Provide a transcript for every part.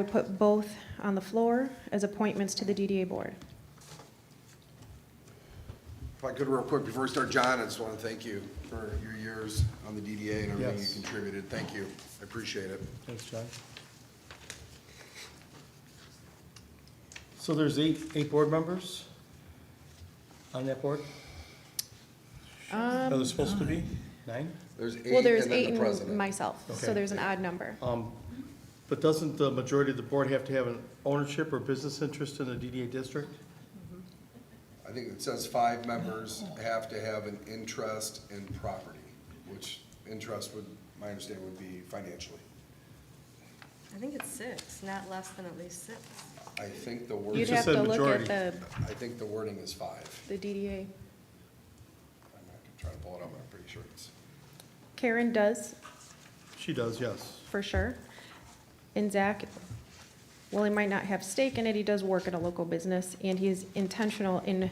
would put both on the floor as appointments to the DDA board. If I could real quick, before we start, John, I just want to thank you for your years on the DDA and everything you Yes. contributed. Thank you. I appreciate it. Thanks, John. So there's eight, eight board members on that board? Are there supposed to be? Nine? There's eight Well, and there's then eight the and president. myself, so Okay. there's an odd number. Um, But doesn't the majority of the board have to have an ownership or business interest in the DDA district? I think it says five members have to have an interest in property, which interest would, my understanding would be financially. I think it's six, not less than at least six. I think the You'd wording, just have to said look at majority. the, I think the wording is five. the DDA. I'm not gonna try to pull it up, but I'm pretty sure it's. Karen does, She does, yes. for sure. And Zach, while he might not have stake in it, he does work at a local business, and he is intentional in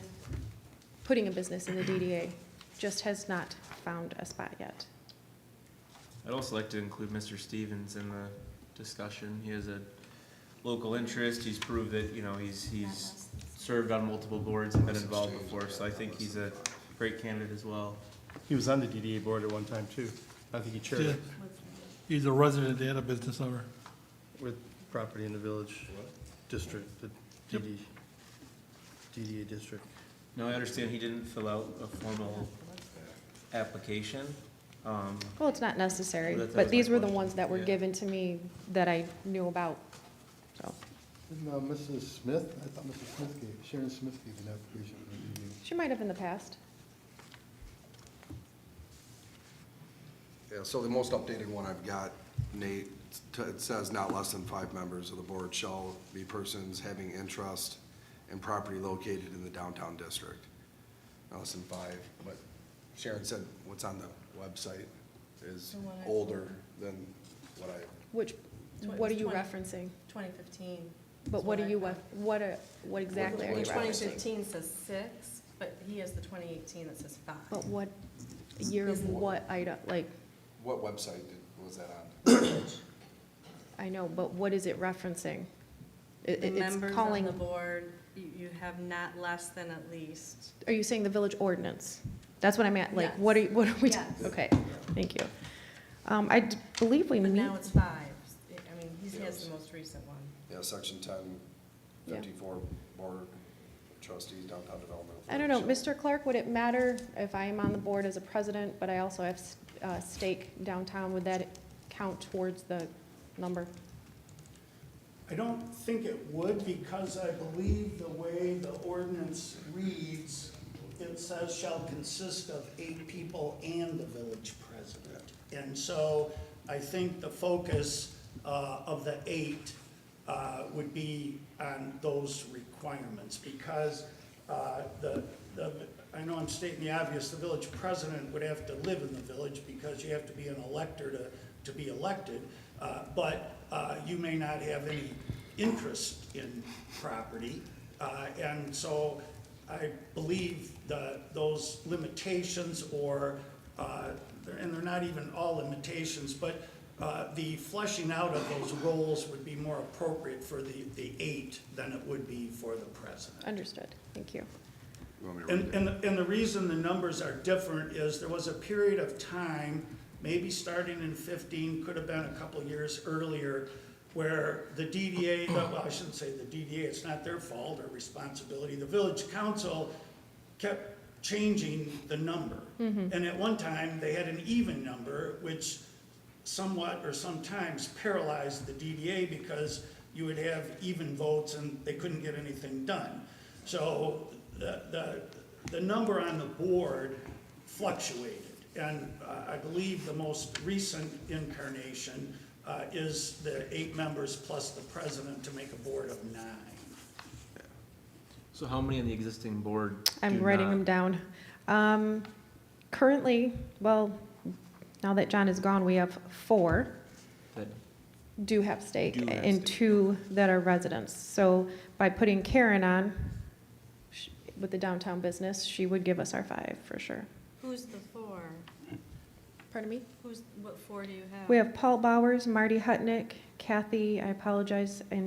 putting a business in the DDA, just has not found a spot yet. I'd also like to include Mr. Stevens in the discussion. He has a local interest. He's proved that, you know, he's, he's served on multiple boards and been involved before, so I think he's a great candidate as well. He was on the DDA board at one time, too. I think he chaired it He's a resident and a business owner. with property in the village district, the DD, DDA district. Now, I understand he didn't fill out a formal application. Um, Well, it's not necessary, That- that was but my these were the question. ones that were Yeah. given to me that I knew about, so. No, Mrs. uh, Smith, I thought Mrs. Smith gave, Sharon Smith gave an application for the DDA. She might have in the past. Yeah, so the most updated one I've got, Nate, t- it says not less than five members of the board shall be persons having interest in property located in the downtown district. Not less than five, but Sharon said what's on the website is The one I- older than what I Which, Twen- what are it's you 20. referencing? Twenty fifteen. But That's what what are I you, found. wef- what, are- what exactly are you Twenty referencing? fifteen says six, but he has the twenty eighteen that says five. But what, year of Is- what item, like, What website did- was that on? I know, but what is it referencing? It- The it- It's members on the calling, board, you, you have not less than at least. are you saying the village ordinance? That's what I meant, like, Yes. what are, you- what are we, t- Yes. okay, thank you. Um, I d- believe we But meet, now it's five. I mean, he has the most recent one. Yeah, section ten Yeah. fifty-four, board of trustees, downtown development. I don't know, Authority Mr. Clark, would it matter if I am on the board as a president, but I also have s- uh, stake downtown? Would that count towards the number? I don't think it would because I believe the way the ordinance reads, it says shall consist of eight people and the village president. And so I think the focus uh, of the eight uh, would be on those requirements because uh, the, the, I know I'm stating the obvious, the village president would have to live in the village because you have to be an elector to, to be elected. Uh, But uh, you may not have any interest in property. Uh, And so I believe the, those limitations or, uh, and they're not even all limitations, but uh, the fleshing out of those roles would be more appropriate for the, the eight than it would be for the president. Understood, thank you. You want me to read And, it? and, and the reason the numbers are different is there was a period of time, maybe starting in fifteen, could have been a couple years earlier, where the DDA, well, I shouldn't say the DDA, it's not their fault or responsibility, the village council kept changing the number. And at one time, they had an even number, which somewhat or sometimes paralyzed the DDA because you would have even votes and they couldn't get anything done. So the, the, the number on the board fluctuated. And uh, I believe the most recent incarnation uh, is the eight members plus the president to make a board of nine. So how many on the existing board? I'm do writing not- them down. Um, Currently, well, now that John is gone, we have four that do have stake Do have and stake. two that are residents. So by putting Karen on sh- with the downtown business, she would give us our five for sure. Who's the four? Pardon me? Who's, what four do you have? We have Paul Bowers, Marty Hutnick, Kathy, I apologize, and